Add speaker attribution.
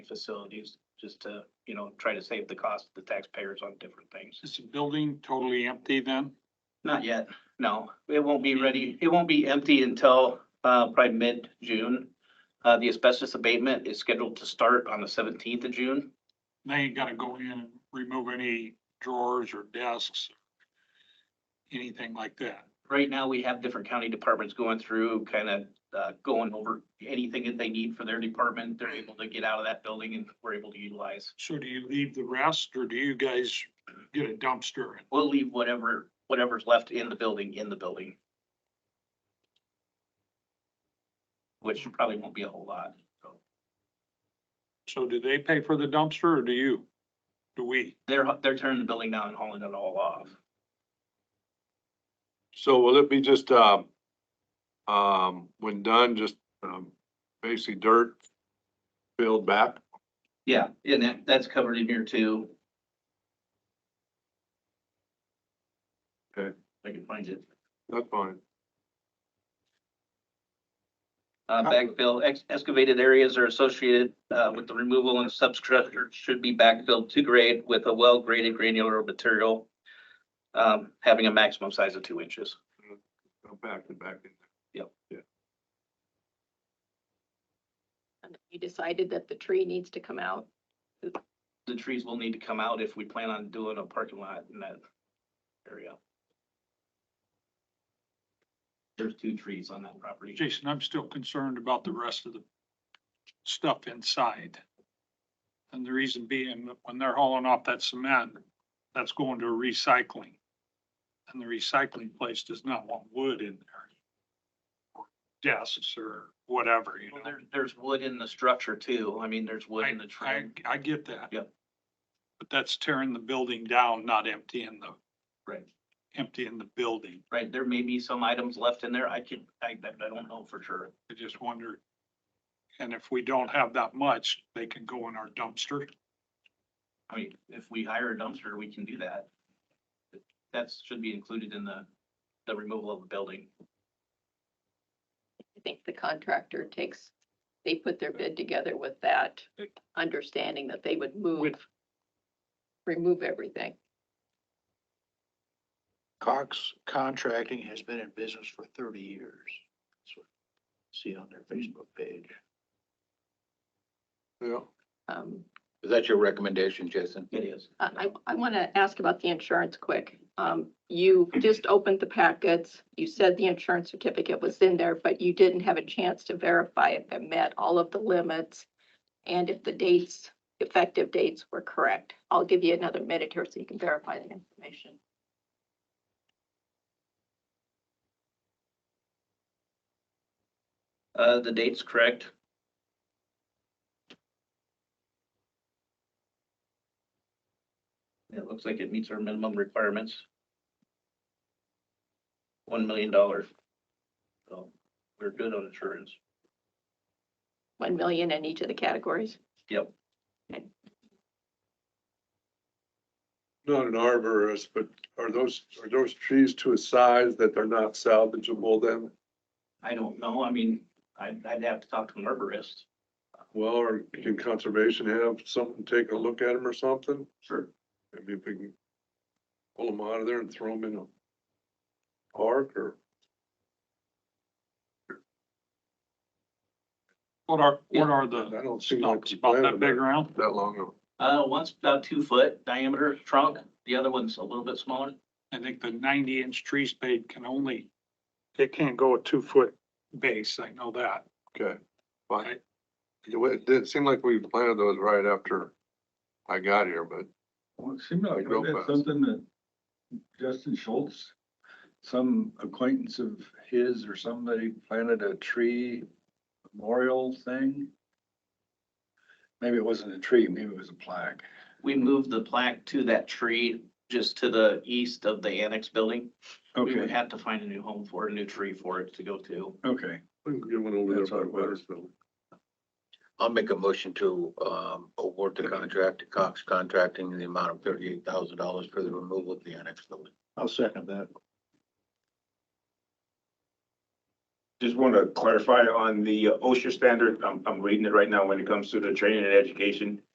Speaker 1: facilities, just to, you know, try to save the cost of the taxpayers on different things.
Speaker 2: Is the building totally empty then?
Speaker 1: Not yet, no, it won't be ready, it won't be empty until, uh, probably mid-June. Uh, the asbestos abatement is scheduled to start on the seventeenth of June.
Speaker 2: They ain't gotta go in and remove any drawers or desks, anything like that.
Speaker 1: Right now, we have different county departments going through, kind of, uh, going over anything that they need for their department. They're able to get out of that building and we're able to utilize.
Speaker 2: So do you leave the rest or do you guys get a dumpster?
Speaker 1: We'll leave whatever, whatever's left in the building, in the building. Which probably won't be a whole lot, so.
Speaker 2: So do they pay for the dumpster or do you? Do we?
Speaker 1: They're, they're tearing the building down and hauling it all off.
Speaker 3: So will it be just, um, um, when done, just, um, basically dirt filled back?
Speaker 1: Yeah, and that, that's covered in here too.
Speaker 3: Okay.
Speaker 1: If I can find it.
Speaker 3: That's fine.
Speaker 1: Uh, backfill, ex- excavated areas are associated, uh, with the removal and substructure should be backfilled to grade with a well-graded granular material. Um, having a maximum size of two inches.
Speaker 3: Go back and back in.
Speaker 4: And You decided that the tree needs to come out.
Speaker 1: The trees will need to come out if we plan on doing a parking lot in that area. There's two trees on that property.
Speaker 2: Jason, I'm still concerned about the rest of the stuff inside. And the reason being, that when they're hauling off that cement, that's going to recycling. And the recycling place does not want wood in there. or Desks or whatever, you
Speaker 1: Well,
Speaker 2: know.
Speaker 1: There, there's wood in the structure too. I mean, there's wood
Speaker 2: I,
Speaker 1: in the
Speaker 2: I,
Speaker 1: trim.
Speaker 2: I get that.
Speaker 1: Yep.
Speaker 2: But that's tearing the building down, not emptying the,
Speaker 1: Right.
Speaker 2: emptying the building.
Speaker 1: Right, there may be some items left in there. I could, I, I don't know for sure.
Speaker 2: I just wondered. And if we don't have that much, they can go in our dumpster.
Speaker 1: I mean, if we hire a dumpster, we can do that. That should be included in the, the removal of the building.
Speaker 4: I think the contractor takes, they put their bid together with that understanding that they would move, remove everything.
Speaker 5: Cox Contracting has been in business for thirty years. That's what I See on their Facebook page.
Speaker 3: Yeah.
Speaker 4: Um,
Speaker 6: Is that your recommendation, Jason?
Speaker 1: It is.
Speaker 4: I, I want to ask about the insurance quick. Um, You just opened the packets. You said the insurance certificate was in there, but you didn't have a chance to verify if it met all of the limits and if the dates, effective dates were correct. I'll give you another minute here so you can verify the information.
Speaker 1: Uh, the date's correct. It looks like it meets our minimum requirements. One million dollars. So we're good on insurance.
Speaker 4: 1 million in each of the categories.
Speaker 1: Yep.
Speaker 3: Not an arborist, but are those, are those trees to a size that they're not salvageable then?
Speaker 1: I don't know. I mean, I'd, I'd have to talk to an arborist.
Speaker 3: Well, or can conservation have something, take a look at them or something?
Speaker 1: Sure.
Speaker 3: Maybe if we can pull them out of there and throw them in a park or
Speaker 2: What are,
Speaker 1: Yeah.
Speaker 2: what are the
Speaker 3: I don't seem like.
Speaker 2: stumps
Speaker 3: we
Speaker 2: about that
Speaker 3: planted
Speaker 2: big around?
Speaker 3: That long ago.
Speaker 1: Uh, one's about two foot diameter trunk, the other one's a little bit smaller.
Speaker 2: I think the ninety inch tree spade can only, it can't go a two foot base, I know that.
Speaker 3: Okay, fine.
Speaker 2: Right.
Speaker 3: It wa- it didn't seem like we planted those right after I got here, but
Speaker 7: Well, it seemed like
Speaker 3: Real
Speaker 7: that's
Speaker 3: fast.
Speaker 7: something that Justin Schultz, some acquaintance of his or somebody planted a tree memorial thing. Maybe it wasn't a tree, maybe it was a plaque.
Speaker 1: We moved the plaque to that tree just to the east of the annex building. We would
Speaker 7: Okay,
Speaker 1: have to find a new home for, it, a new tree for it to go to.
Speaker 7: okay.
Speaker 3: we can get one over there
Speaker 7: That's
Speaker 3: by
Speaker 7: what it was.
Speaker 3: Weathersfield.
Speaker 6: I'll make a motion to um, award the contract to Cox Contracting in the amount of thirty-eight thousand dollars for the removal of the annex building.
Speaker 5: I'll second that.
Speaker 6: Just want to clarify on the OSHA standard, I'm, I'm reading it right now when it comes to the training and education.